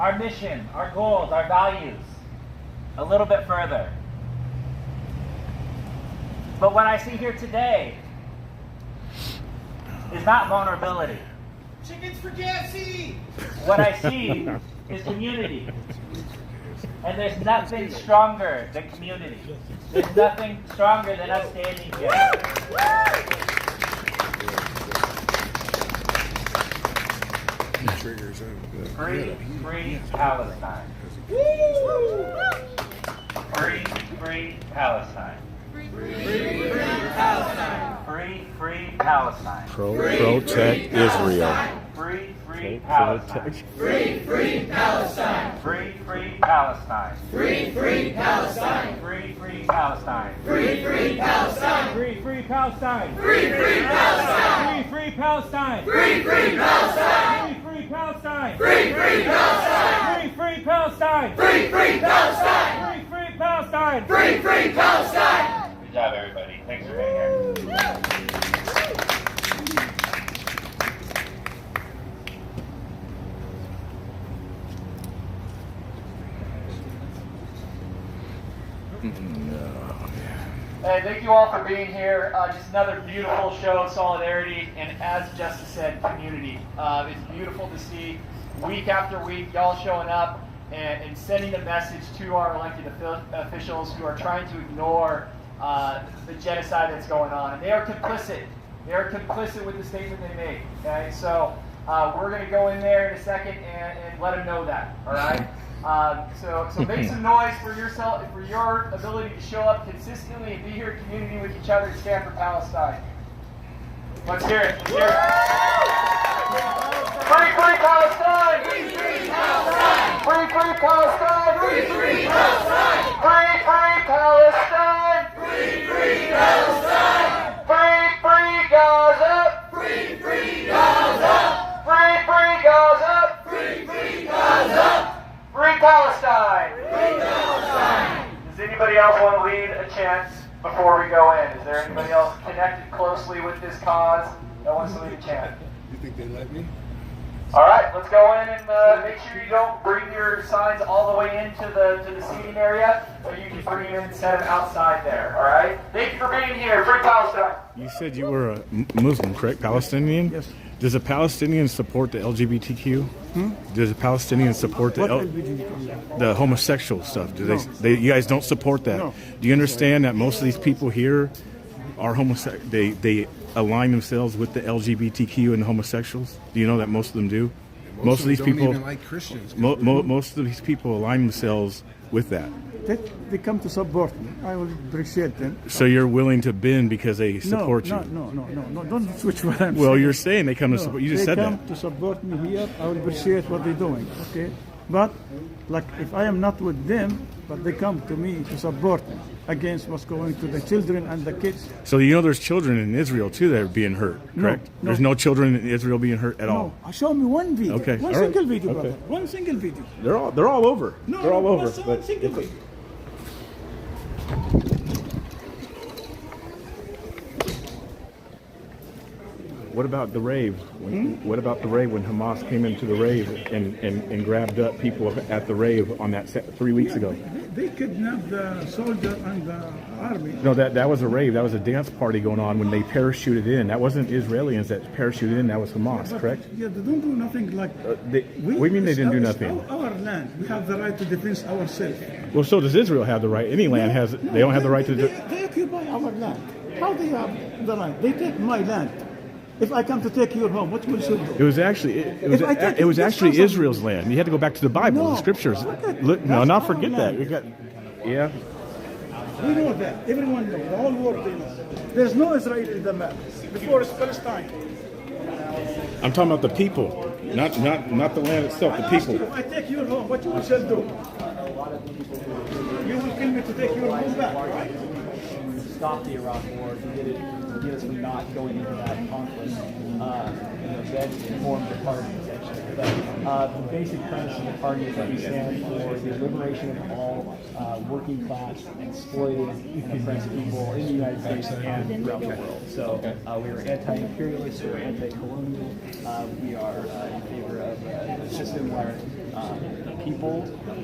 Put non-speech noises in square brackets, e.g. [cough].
our mission, our goals, our values a little bit further. But what I see here today is not vulnerability. Chickens for KFC! What I see is community. And there's nothing stronger than community. There's nothing stronger than us standing here. triggers out. Free, free Palestine. Free, free Palestine. Free, free Palestine. Pro, protect Israel. Free, free Pro- Palestine. protect- Free, free Palestine. Free, free Palestine. Free, free Palestine. Free, free Palestine. Free, free Palestine. Free, free Palestine. Free, free Palestine. Free, free Palestine. Free, free Palestine. Free, free Palestine. Free, free Palestine. Free, free Palestine. Good job, everybody. Thanks for being here. Hey, thank you all for being here. Uh, just another beautiful show of solidarity, and as Justice said, community. Uh, it's beautiful to see week after week y'all showing up and, and sending a message to our elected offi- officials who are trying to ignore uh, the genocide that's going on, and they are complicit. They are complicit with the statement they made. Okay, so uh, we're going to go in there in a second and, and let them know that. All [laughs] right. Um, so, so make some noise for yourself, for your ability to show up consistently and be here in community with each other and stand for Palestine. Let's hear it. Let's hear it. Free, free Palestine! Free, free Palestine! Free, free Palestine! Free, free Palestine! Free, free Palestine! Free, free Palestine! Free, free Gaza! Free, free Gaza! Free, free Gaza! Free Palestine! Free Palestine! Does anybody else want to lead a chant before we go in? Is there anybody else connected closely with this cause that wants to lead a chant? You think they let me? All right, let's go in and uh, make sure you don't bring your signs all the way into the to the seating area, but you can bring them and set them outside there. All right. Thank you for being here. Free Palestine. You said you were a M- Muslim, correct? Palestinian? Yes. Does a Palestinian support the LGBTQ? Hmm? Does a Palestinian support the, L- the homosexual stuff? Do they, they? You guys don't support that. No. Do you understand that most of these people here are homosexual? They they align themselves with the LGBTQ and the homosexuals. Do you know that most of them do? Most, of these don't people, even like Christians. mo- mo- most of these people align themselves with that. That they come to support me. I will appreciate them. So you're willing to bend because they support no, you. No, no, no, no, no. Don't switch what I'm Well, saying. you're saying they come to support. You just they said come that. to support me here. I will appreciate what they're doing. Okay, but like if I am not with them, but they come to me to support me against what's going to the children and the kids. So you know there's children in Israel too that are being hurt, No, correct? no. There's no children in Israel being hurt at all. No, uh, show me one video. Okay, One all right. single video, Okay. brother. One single video. They're all they're all over. No, they're all no, over. one but- single video. What about the rave? When, Hmm? What about the rave when Hamas came into the rave and, and, and grabbed up people at the rave on that set three weeks ago? They, they kidnapped the soldier and the army. No, that, that was a rave. That was a dance party going on when they parachuted in. That wasn't Israelis that parachuted in. That was Hamas, correct? Yeah, they don't do nothing like. Uh, they, what do you mean they didn't do it's nothing? Our, our land. We have the right to defend ourselves. Well, so does Israel have the right? Any land has. They don't have the right to. They, do- they occupy our land. How they have the right? They take my land. If I come to take your home, what will should It do? was actually it, it was If I take it was this actually house, I'm- Israel's land. You had to go back to the Bible, No, the scriptures. look at- Look, no, that's not our forget that. land. We got, yeah, We know that. Everyone knows. The whole world they know. There's no Israel in the map. Before it's Palestine. I'm talking about the people, not not not the land itself. I The ask you, people. I take your home, what you will shall do? You will kill me to take your home back, right? stop the Iraq War, to get it, to get us from not going into that conflict. Uh, you know, then form the party essentially. But uh, the basic premise of the party is that we stand for the liberation of all uh, working class, exploited, and oppressed people in the United States and throughout the world. So uh, we are anti-imperialist, we're anti-colonial, uh, we are uh, in favor of uh, a system where uh, people